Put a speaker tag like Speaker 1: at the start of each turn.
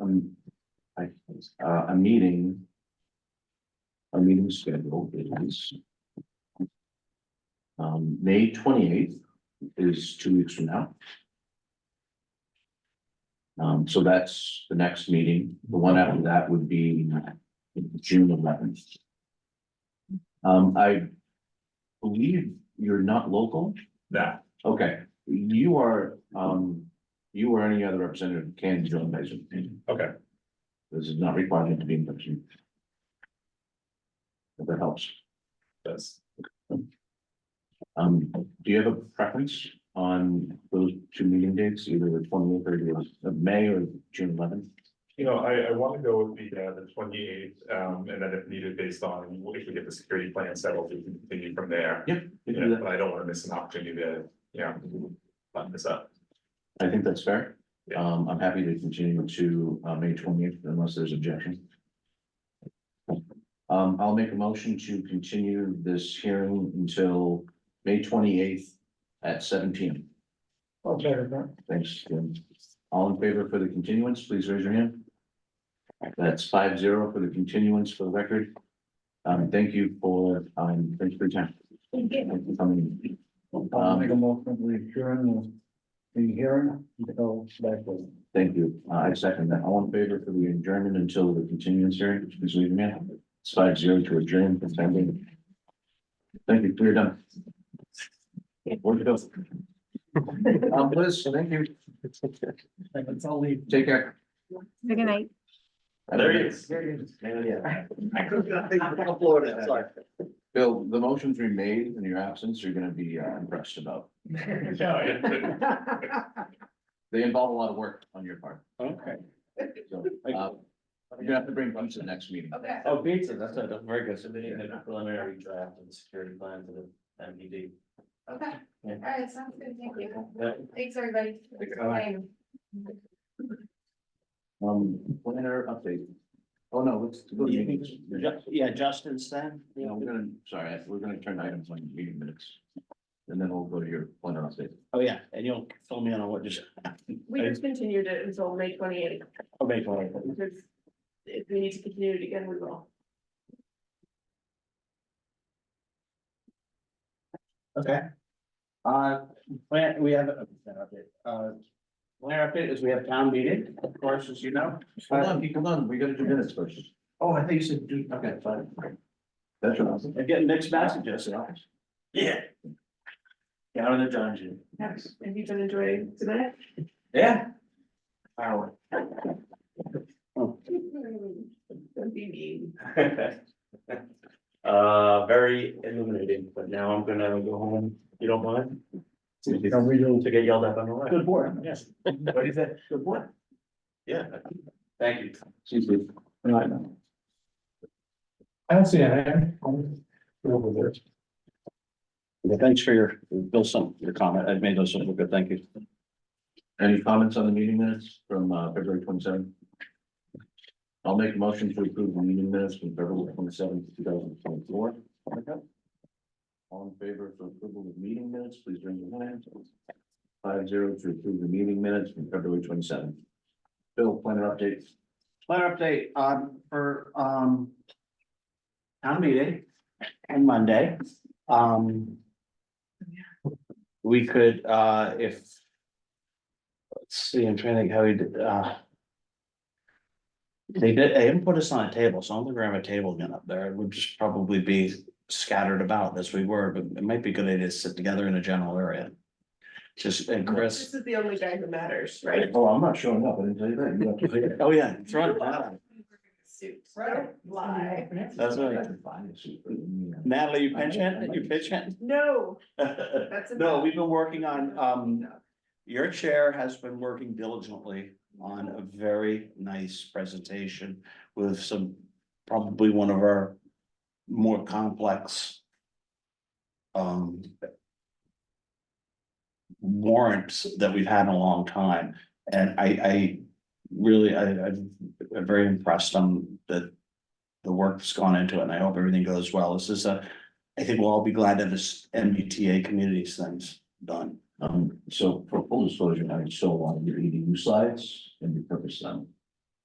Speaker 1: um, I, uh, a meeting. A meeting schedule is. Um, May twenty eighth is two weeks from now. Um, so that's the next meeting. The one after that would be June eleventh. Um, I believe you're not local.
Speaker 2: No,
Speaker 1: Okay, you are, um, you or any other representative can join by Zoom.
Speaker 2: okay,
Speaker 1: This is not required to be in person. If that helps.
Speaker 2: that's,
Speaker 1: Um, do you have a preference on those two meeting dates, either the twenty eighth or the of May or June eleventh?
Speaker 2: you know, I, I want to go with the, uh, the twenty eighth, um, and then if needed, based on if we get the security plan settled, we can continue from there.
Speaker 1: You
Speaker 2: Yeah,
Speaker 1: do that.
Speaker 2: but I don't want to miss an opportunity to, you know, button this up.
Speaker 1: I think that's fair.
Speaker 2: Yeah.
Speaker 1: Um, I'm happy to continue to, uh, May twenty eighth unless there's objection. Um, I'll make a motion to continue this hearing until May twenty eighth at seven P M.
Speaker 3: I'll second that.
Speaker 1: Thanks, Jim. All in favor for the continuance, please raise your hand. That's five zero for the continuance for the record. Um, thank you for, um, thanks for your time. Thank you. for coming. in.
Speaker 3: I'll
Speaker 1: Um,
Speaker 3: make a motion to adjourn the the hearing until that was.
Speaker 1: Thank you. Uh, I second that. All in favor for the adjournment until the continuance hearing, please raise your hand. It's five zero to adjourn. It's pending. Thank you. We're done. Where'd you go? Um, Liz, thank you.
Speaker 3: It's all leave.
Speaker 1: Take care.
Speaker 4: Good
Speaker 5: Mm-hmm.
Speaker 4: night.
Speaker 2: There it is.
Speaker 1: Yeah.
Speaker 3: I could not think of Florida, sorry.
Speaker 1: Bill, the motion's remade in your absence, you're gonna be uh, impressed about.
Speaker 2: Yeah,
Speaker 1: They involve a lot of work on your part,
Speaker 3: Okay.
Speaker 1: so. uh, You're gonna have to bring them to the next meeting.
Speaker 5: Okay.
Speaker 6: Oh, pizza, that's not, that's very good, so they need a preliminary draft and security plan to the MPD.
Speaker 5: Okay,
Speaker 6: Yeah.
Speaker 5: all right, sounds good, thank you.
Speaker 6: Yeah.
Speaker 5: Thanks, everybody.
Speaker 6: you.
Speaker 5: Bye.
Speaker 1: Um, planner update. Oh, no, let's go to meetings.
Speaker 6: Yeah, Justin said.
Speaker 1: No, we're gonna, sorry, we're gonna turn items on meeting minutes. And then we'll go to your planner update.
Speaker 6: Oh, yeah, and you'll fill me in on what just.
Speaker 5: We just continued it until May twenty eighth,
Speaker 6: Oh, wait, hold on.
Speaker 5: because if we need to continue it again, we will.
Speaker 6: Okay. Uh, plan, we have a plan update. Uh, plan update is we have town meeting, of course, as you know.
Speaker 1: Hold on, Pete, hold on, we gotta do minutes first.
Speaker 6: Oh, I think you said, do- okay, fine.
Speaker 1: That's what I was.
Speaker 6: I'm getting mixed messages. Yeah. Down in the dungeon.
Speaker 5: Have have you been enjoying tonight?
Speaker 6: Yeah. Hour.
Speaker 5: Don't be mean.
Speaker 6: Uh, very illuminating, but now I'm gonna go home, you don't mind? To
Speaker 3: we do.
Speaker 6: get yelled at on the way.
Speaker 3: Good board, yes.
Speaker 6: What is that? Good point. Yeah. Thank you.
Speaker 1: She's with-
Speaker 3: Right. I don't see it. Over there.
Speaker 6: Thanks for your, Bill, some, your comment, I've made those look good, thank you.
Speaker 1: Any comments on the meeting minutes from uh, February twenty seventh? I'll make a motion to approve the meeting minutes from February twenty seventh, two thousand twenty four. All in favor for approval of meeting minutes, please raise your hand. Five zero to approve the meeting minutes from February twenty seventh. Bill, planner updates.
Speaker 6: Planner update, um, for, um. Town meeting on Monday, um. We could, uh, if. Let's see, I'm trying to think how we did, uh. They did, they didn't put us on a table, so I'm gonna grab a table again up there, it would just probably be scattered about as we were, but it might be a good idea to sit together in a general area. Just, and
Speaker 5: This
Speaker 6: Chris,
Speaker 5: is the only guy who matters, right?
Speaker 1: Oh, I'm not showing up. I didn't tell you that. You have to say it.
Speaker 6: oh yeah, throw it out.
Speaker 5: Suit, right? Lie.
Speaker 6: That's
Speaker 1: I
Speaker 6: right.
Speaker 1: have to find a suit for the meeting.
Speaker 6: Natalie, you pinch it, you pitch it?
Speaker 5: No, that's.
Speaker 6: No,
Speaker 5: enough.
Speaker 6: we've been working on, um, your chair has been working diligently on a very nice presentation with some, probably one of our more complex um warrants that we've had in a long time. And I, I really, I, I'm very impressed on the the work that's gone into it, and I hope everything goes well. This is a, I think we'll all be glad that this MBTA communities thing's done.
Speaker 1: Um, so for full disclosure, I still want your EDU slides and repurpose them